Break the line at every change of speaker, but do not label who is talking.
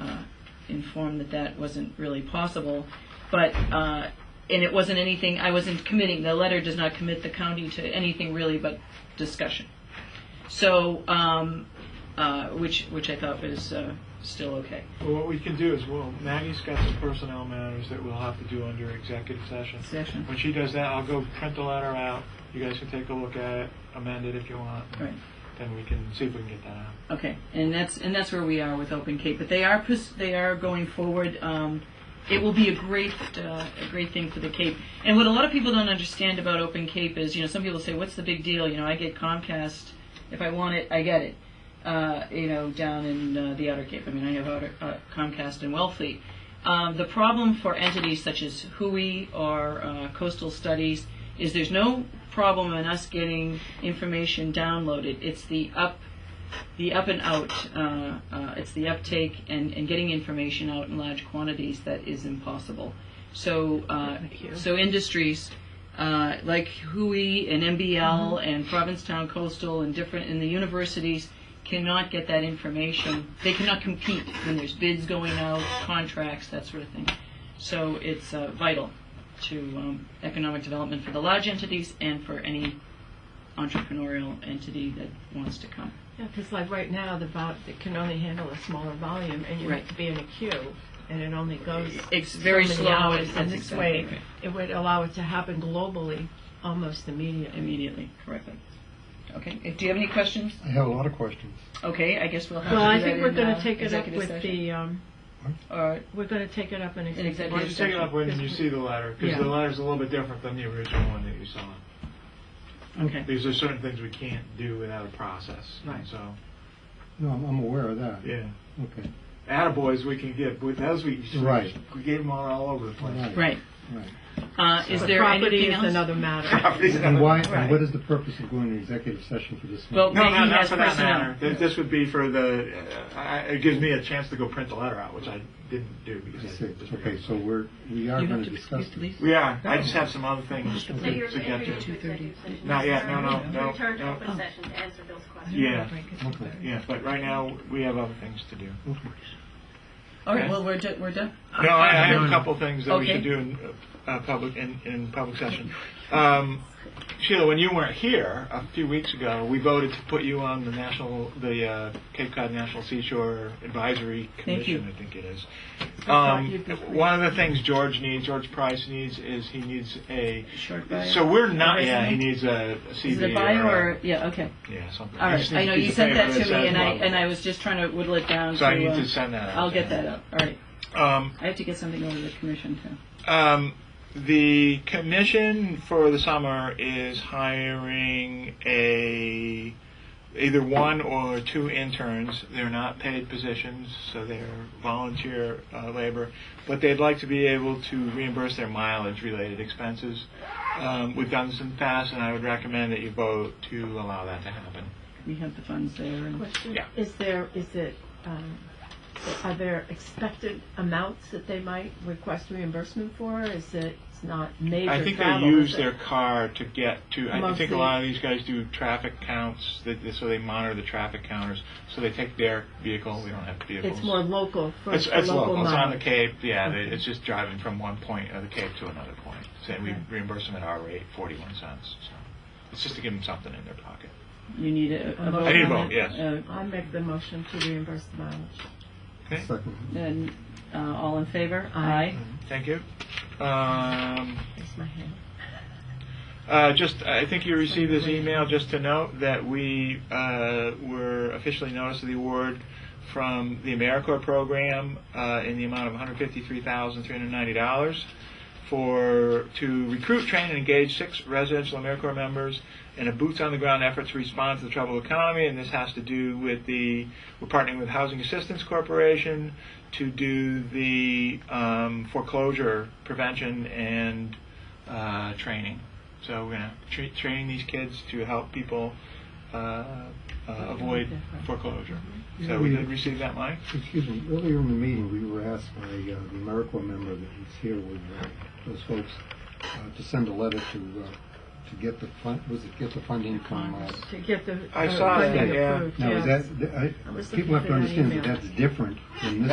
uh, informed that that wasn't really possible. But, uh, and it wasn't anything, I wasn't committing, the letter does not commit the county to anything really but discussion. So, um, uh, which, which I thought was uh, still okay.
Well, what we can do is, well, Maggie's got some personnel matters that we'll have to do under executive session.
Session.
When she does that, I'll go print the letter out. You guys can take a look at it, amend it if you want.
Right.
Then we can see if we can get that out.
Okay, and that's and that's where we are with Open Cape, but they are pers- they are going forward. Um, it will be a great uh, a great thing for the Cape. And what a lot of people don't understand about Open Cape is, you know, some people say, "What's the big deal?" You know, I get Comcast if I want it, I get it. Uh, you know, down in uh, the Outer Cape. I mean, I have outer, uh, Comcast and Wellfleet. Um, the problem for entities such as HUI or uh, Coastal Studies is there's no problem in us getting information downloaded. It's the up the up and out, uh, uh, it's the uptake and, and getting information out in large quantities that is impossible. So, uh, so industries uh, like HUI and MBL and Provincetown Coastal and different and the universities cannot get that information. They cannot compete when there's bids going out, contracts, that sort of thing. So it's uh, vital to um, economic development for the large entities and for any entrepreneurial entity that wants to come.
Yeah, because like right now, the vol, it can only handle a smaller volume, and you
Right.
have to be in a queue, and it only goes
It's
so
very
many
slow,
hours,
and
And
that's
this way,
exactly right.
it would allow it to happen globally almost immediately.
immediately, correctly. Okay, if, do you have any questions?
I have a lot of questions.
Okay, I guess we'll have
Well,
to
I
do
think
that
we're
in,
going
uh,
to take it up
executive
with
session.
the, um,
All right,
we're going to take it up in
in
executive.
executive
Why don't you take it up
session.
when you see the letter?
Yeah.
Because the letter's a little bit different than the original one that you saw.
Okay,
These are certain things we can't do without a process.
Right.
So,
No, I'm, I'm aware of that.
yeah.
Okay.
Attaboys we can give, but those we,
Right.
we gave them all, all over the place.
right.
Right.
Uh, is
The
there
property
anything
is
else?
another matter.
And
Property.
why? And what is the purpose of going to executive session for this?
Well,
No,
Maggie
no, not
has
for that
personnel.
matter. Th- This would be for the, uh, I- it gives me a chance to go print the letter out, which I didn't do
meeting?
because.
I
I
see.
just-
Okay, so we're we are
You
going
have
to
to
discuss
excuse
this.
Lisa.
We are, I just have some other things
So you're
to get
entering
to.
into executive session.
Not yet, no, no, no,
Return to
no.
open session to answer Bill's question.
Yeah,
Okay.
yeah, but right now, we have other things to do.
Okay.
All right, well, we're, do- we're done.
No, I I have a couple things that we
Okay.
should do in uh, uh, public, in, in public session. Um, Sheila, when you weren't here a few weeks ago, we voted to put you on the national, the uh, Cape Cod National Seashore Advisory
Thank you.
Commission, I think it is.
thought
Um,
you'd be pleased.
One of the things George needs, George Price needs, is he needs a,
Short bio.
so we're not,
Or
yeah, he
resume?
needs a
Is it
CV
a bio
or,
or,
a-
yeah, okay.
yeah, something.
All
He just
right, I
needs
know
a piece
you
of
sent
paper
that to
says
me and I,
blah,
and I
blah.
was just trying to whittle it down
So I
to,
need
uh,
to send that out.
I'll get that up. All right.
Um,
I have to get something over to the commission too.
Um, the commission for the summer is hiring a either one or two interns. They're not paid positions, so they're volunteer uh, labor, but they'd like to be able to reimburse their mileage-related expenses. Um, we've done this in the past, and I would recommend that you vote to allow that to happen.
We have the funds there and
Question,
Yeah.
is there, is it, um, are there expected amounts that they might request reimbursement for? Is it, it's not major
I think they
travel,
use
is it?
their car to get to. I think a
Mostly.
lot of these guys do traffic counts, that, so they monitor the traffic counters. So they take their vehicle. We don't have vehicles.
It's more local, for
It's,
for
it's
local
local. It's on the
mileage.
Cape. Yeah, they, it's just driving from one point of the Cape to another point. So we
Okay.
reimburse them at our rate, forty-one cents. So it's just to give them something in their pocket.
you need a, a
I
vote
need a
on
vote,
it?
yes.
Uh,
I make the motion to reimburse the mileage.
Okay.
Second.
And, uh, all in favor?
Aye.
Thank you. Um,
Raise my hand.
Uh, just, I think you received this email, just to note that we uh, were officially noticed of the award from the AmeriCorps program uh, in the amount of $153,390 for, to recruit, train, and engage six residential AmeriCorps members in a boots-on-the-ground effort to respond to the troubled economy, and this has to do with the, we're partnering with Housing Assistance Corporation to do the um, foreclosure prevention and uh, training. So we're gonna tra- train these kids to help people uh, uh, avoid foreclosure. So we did receive that money.
Excuse me. Earlier in the meeting, we were asked by uh, the AmeriCorps member that was here with uh, those folks uh, to send a letter to uh, to get the fund. Was it get the funding from? Uh,
To get the.
I
uh,
saw
funding
that, yeah.
approved,
now
yes.
is that? I,
I was
people have
looking for
to
that
understand that
email.
that's different than this